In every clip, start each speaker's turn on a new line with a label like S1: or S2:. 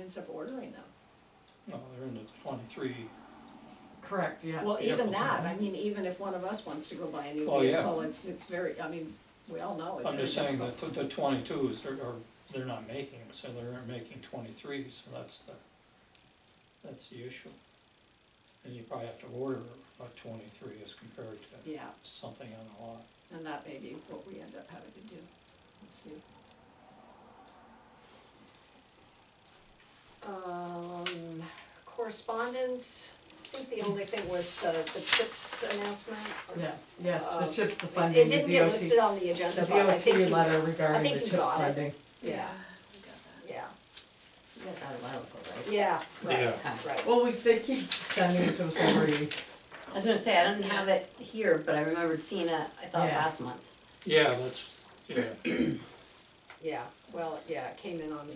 S1: ends up ordering them.
S2: No, they're in the twenty-three,
S3: Correct, yeah.
S1: Well, even
S2: Vehicles,
S1: that,
S2: yeah.
S1: I mean, even if one of us wants to go buy a new
S2: Oh, yeah.
S1: vehicle, it's, it's very, I mean, we all know it's
S2: I'm
S1: very
S2: just saying
S1: difficult.
S2: that the- the twenty-twos, they're, are, they're not making, them, so they're making twenty-threes, so that's the, that's the issue. And you probably have to order a twenty-three as compared to
S1: Yeah,
S2: something on the lot.
S1: and that may be what we end up having to do, let's see. Um, correspondence, I think the only thing was the, the CHIPS announcement. or-
S3: Yeah, yeah, the
S1: Uh,
S3: CHIPS, the
S1: It
S3: funding,
S1: it
S3: the DOT.
S1: didn't get listed on the agenda,
S3: The
S1: but I
S3: DOT
S1: think you,
S3: letter
S1: I
S3: regarding
S1: think
S3: the
S1: you
S3: CHIPS
S1: got it.
S3: funding.
S1: yeah,
S4: we got that.
S1: yeah,
S4: We got that a while ago, right?
S1: yeah, right,
S2: Yeah.
S1: right.
S3: Well, we, they keep sending it to us every,
S4: I was gonna say, I didn't have it here, but I remembered seeing it, I thought
S3: Yeah.
S4: last month.
S2: Yeah, that's, yeah,
S1: Yeah, well, yeah, it came in on,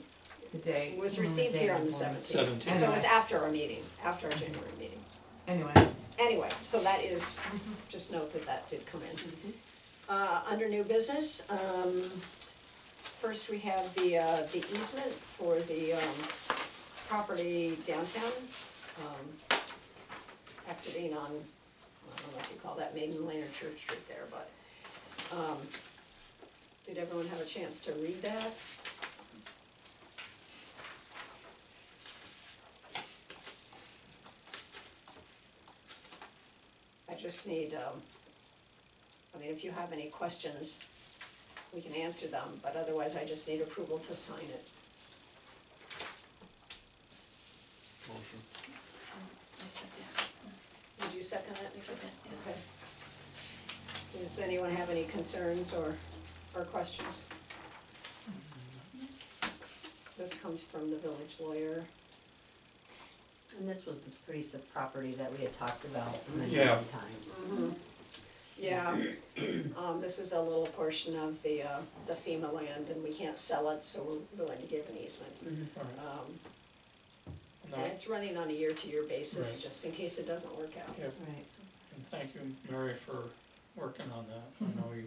S5: The day.
S1: it was
S5: came on
S1: received
S5: day
S1: here on the
S5: before.
S1: seventeenth.
S2: seventeen.
S1: So it was after our meeting, after our January meeting.
S3: anyway,
S1: Anyway, so that is, just note that that did come
S5: Mm-hmm.
S1: in. Uh, under new business, um, first we have the, uh, the easement for the, um, property downtown, um, exiting on, I don't know what you call that, Maiden Lane or Church Street there, but, um, did everyone have a chance to read that? I just need, um, I mean, if you have any questions, we can answer them, but otherwise I just need approval to sign it.
S6: Motion.
S4: I said that.
S1: Would you second that, Nicole?
S4: Okay, yeah.
S1: Okay. Does anyone have any concerns or, or questions? This comes from the village lawyer.
S4: And this was the piece of property that we had talked about many,
S2: Yeah.
S4: many times.
S1: Mm-hmm. Yeah, um, this is a little portion of the, uh, the FEMA land and we can't sell it, so we're willing to give an easement.
S4: Mm-hmm.
S2: All right,
S1: Um, And
S2: no,
S1: it's running on a year-to-year basis,
S2: Right.
S1: just in case it doesn't work out.
S2: yeah,
S4: Right.
S2: and thank you, Mary, for working on that, I know you,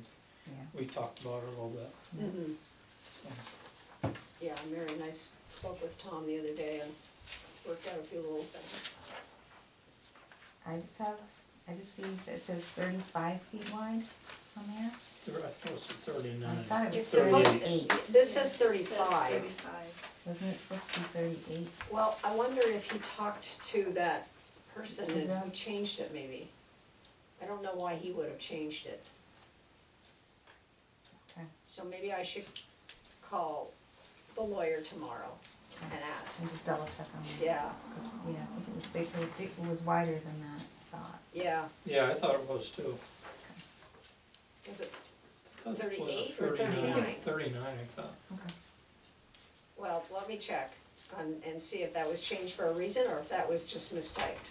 S5: Yeah.
S2: we talked about it a little bit,
S1: Mhm.
S2: so,
S1: Yeah, Mary and I spoke with Tom the other day and worked out a few little things.
S5: I just have, I just see it says thirty-five feet wide on there.
S2: they're up close to
S5: I
S2: thirty-nine.
S5: thought it was
S1: It's supposed-
S5: thirty-eight.
S1: This says
S4: It says
S1: thirty-five.
S4: Thirty-five.
S5: Wasn't it supposed to be thirty-eight?
S1: Well, I wonder if he talked to that person and who changed it maybe. I don't know why he would have changed it.
S5: Okay.
S1: So maybe I should call the lawyer tomorrow and ask.
S5: I'm just double check on that.
S1: Yeah,
S5: 'Cause, Yeah, I think it was bigger, I think it was wider than that, I thought.
S1: yeah,
S2: Yeah, I thought it was too.
S1: was it,
S2: I thought it was a
S1: 38 or 39?
S2: 39, I thought.
S5: Okay.
S1: well, let me check and, and see if that was changed for a reason or if that was just mistyped.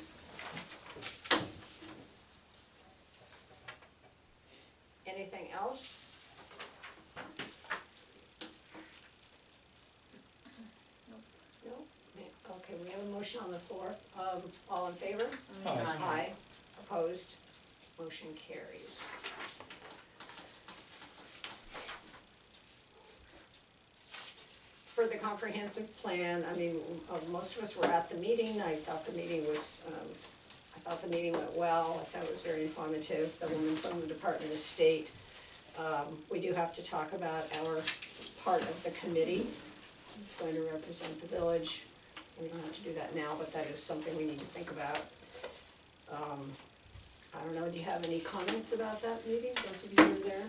S1: Anything else? No? Ma- Okay, we have a motion on the floor. Um, all in favor?
S2: Aye.
S1: Aye. Opposed? Motion carries. For the comprehensive plan, I mean, uh, most of us were at the meeting, I thought the meeting was, um, I thought the meeting went well, I thought it was very informative, the woman from the Department of State. Um, we do have to talk about our part of the committee, that's going to represent the village. We don't have to do that now, but that is something we need to think about. Um, I don't know, do you have any comments about that meeting, those of you who were there?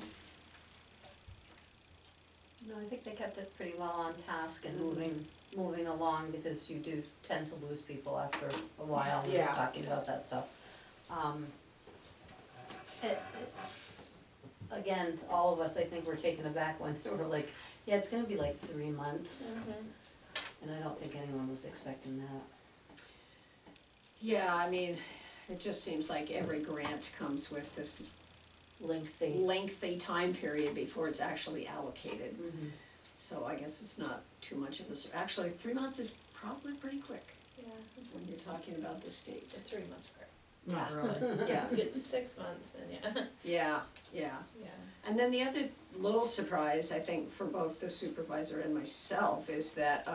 S4: No, I think they kept it pretty well on task and moving, moving along because you do tend to lose people after a while when you're
S1: Yeah.
S4: talking about that stuff. Um, it- it- Again, all of us, I think, were taken aback when they were like, yeah, it's gonna be like three months.
S7: Mm-hmm.
S4: And I don't think anyone was expecting that.
S1: Yeah, I mean, it just seems like every grant comes with this
S4: Lengthy.
S1: lengthy time period before it's actually allocated.
S4: Mhm.
S1: So I guess it's not too much of a, sur- actually, three months is probably pretty quick
S7: Yeah,
S1: when you're talking about the state.
S7: the three months part.
S3: not really.
S1: Yeah,
S7: Get to six months and yeah,
S1: yeah, yeah.
S7: yeah.
S1: And then the other little surprise, I think, for both the supervisor and myself is that,